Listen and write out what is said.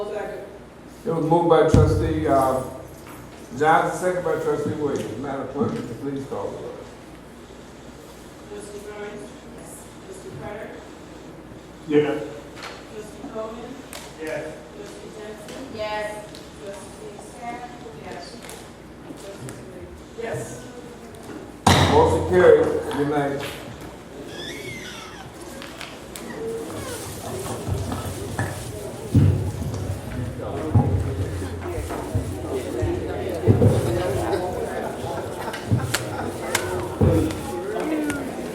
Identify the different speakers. Speaker 1: It was moved by trustee, uh, Johnson, second by trustee Williams. Madam Clerk, would you please call the roll.
Speaker 2: Mr. Burns? Mr. Carter?
Speaker 3: Yes.
Speaker 2: Mr. Coleman?
Speaker 3: Yes.
Speaker 2: Mr. Jackson?
Speaker 4: Yes.
Speaker 2: Trustee Sack? Yes. Trustee Lee?
Speaker 4: Yes.
Speaker 1: Motion carries. Good night.